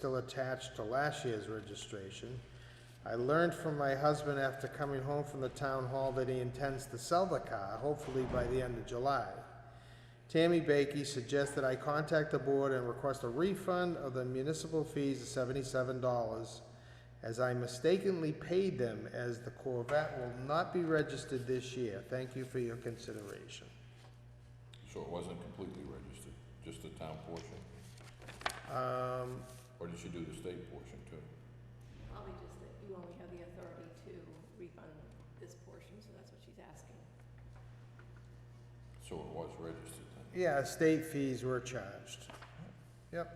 still attached to last year's registration. I learned from my husband after coming home from the town hall that he intends to sell the car, hopefully by the end of July. Tammy Bakey suggested I contact the board and request a refund of the municipal fees of seventy-seven dollars as I mistakenly paid them as the Corvette will not be registered this year. Thank you for your consideration. So it wasn't completely registered, just the town portion? Um, Or did she do the state portion too? Probably just that you only have the authority to refund this portion, so that's what she's asking. So it was registered then? yeah, state fees were charged. Yep.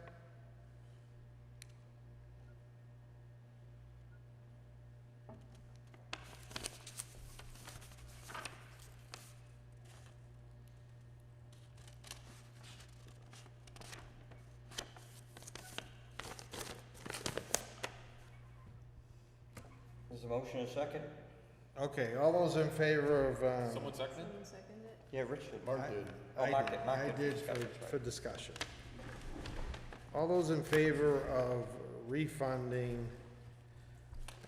There's a motion and a second? Okay, all those in favor of, um, seconded? Someone second it? Yeah, Richard. I- Oh, I Mark did. did, Mark I did for did discussion, for, right. for discussion. All those in favor of refunding,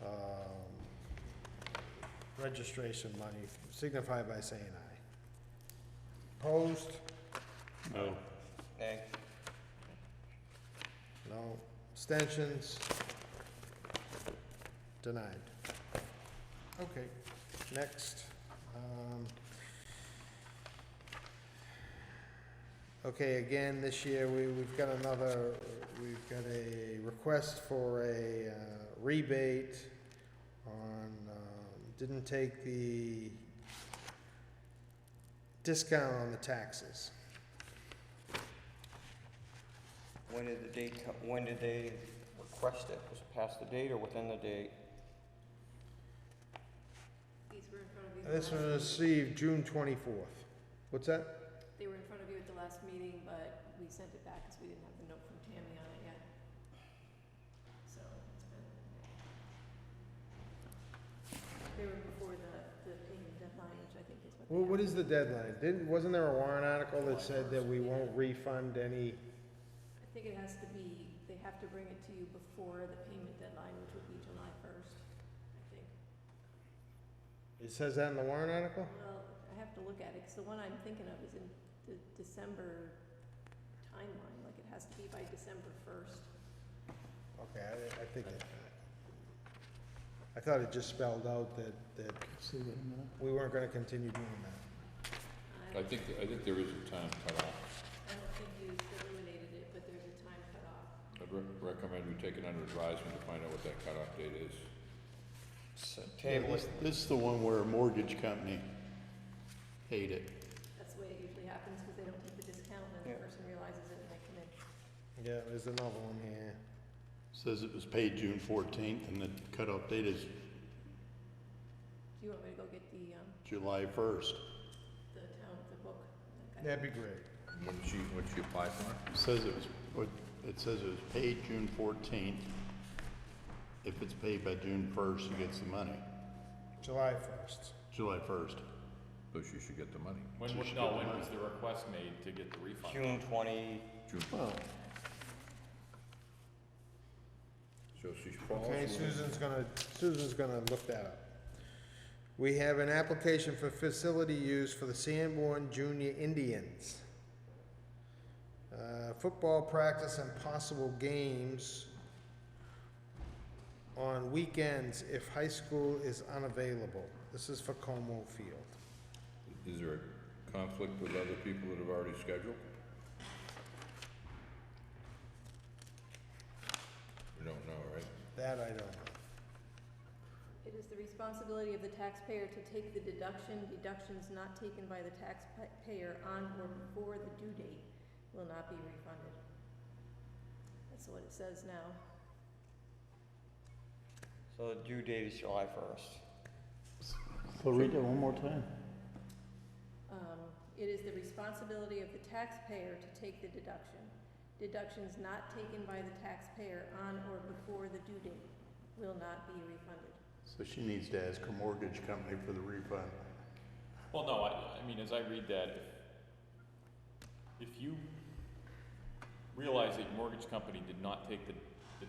um, registration money signify by saying aye. Opposed? No. Nay. No. Abstentions? Denied. Okay, next. um, Okay, again, this year, we, we've got another, we've got a request for a uh, rebate on, um, didn't take the discount on the taxes. When did the date come, when did they request it? Was it past the date or within the date? These were in front of you. at the This was last- received June twenty-fourth. What's that? They were in front of you at the last meeting, but we sent it back because we didn't have the note from Tammy on it yet. So it's been. They were before the, the payment deadline, which I think is what. they Well, what have. is the deadline? Didn't, wasn't there a warrant article that said that we won't refund any? I think it has to be, they have to bring it to you before the payment deadline, which would be July first, I think. It says that in the warrant article? Well, I have to look at it, 'cause the one I'm thinking of is in the December timeline, like it has to be by December first. Okay, I, I think it, I thought it just spelled out that, that we weren't gonna continue doing that. I think, I think there is a time cutoff. I don't think you eliminated it, but there's a time cutoff. I'd re- recommend we take it under advisement to find out what that cutoff date is. So Yeah, Table This it. this is the one where a mortgage company paid it. That's the way it usually happens, 'cause they don't take the discount and the Yeah. person realizes it and they come in. Yeah, there's another one here. Says it was paid June fourteenth and the cutoff date is Do you want me to go get the, um, July first. the town, the book? Like, I- That'd be great. When she, when she applied for it? Says it was, what- it says it was paid June fourteenth. If it's paid by June first, she gets the money, July first. July first. So she should get the money. When, So wa- she no, got when the was the request made to get the refund? June twenty, June, Well, so she falls. Okay, within- Susan's gonna, Susan's gonna look that up. We have an application for facility use for the Sanborn Junior Indians. Uh, football practice and possible games on weekends if high school is unavailable. This is for Como Field. Is there a conflict with other people that have already scheduled? We don't know, right? That I don't know. It is the responsibility of the taxpayer to take the deduction. Deductions not taken by the taxpayer on or before the due date will not be refunded. That's what it says now. so the due date is July first. So read it one more time. Um, it is the responsibility of the taxpayer to take the deduction. Deductions not taken by the taxpayer on or before the due date will not be refunded. so she needs to ask her mortgage company for the refund. Well, no, I, I mean, as I read that, if, if you realize that your mortgage company did not take the